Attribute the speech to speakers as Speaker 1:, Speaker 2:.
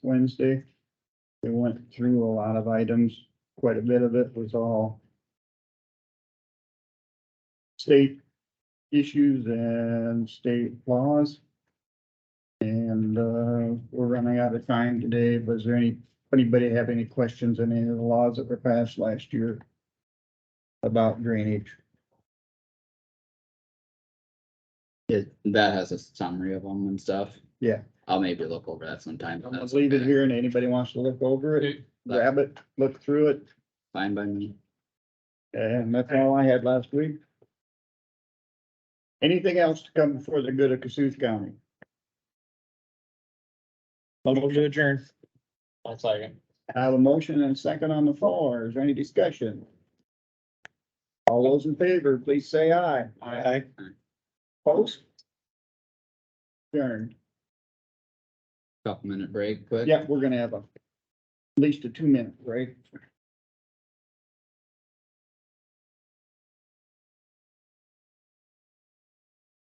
Speaker 1: Wednesday. They went through a lot of items, quite a bit of it was all state issues and state laws. And, uh, we're running out of time today, but is there any, anybody have any questions on any of the laws that were passed last year about drainage?
Speaker 2: It, that has a summary of them and stuff.
Speaker 1: Yeah.
Speaker 2: I'll maybe look over that sometime.
Speaker 1: I'm gonna leave it here and anybody wants to look over it, grab it, look through it,
Speaker 2: Fine by me.
Speaker 1: and that's all I had last week. Anything else to come before the good of Cassuth County?
Speaker 3: Move to adjourn. I'll second.
Speaker 1: I have a motion and a second on the floor. Is there any discussion? All those in favor, please say aye.
Speaker 3: Aye.
Speaker 1: Post? Adjourned.
Speaker 2: Couple minute break, quick.
Speaker 1: Yeah, we're gonna have a, at least a two minute break.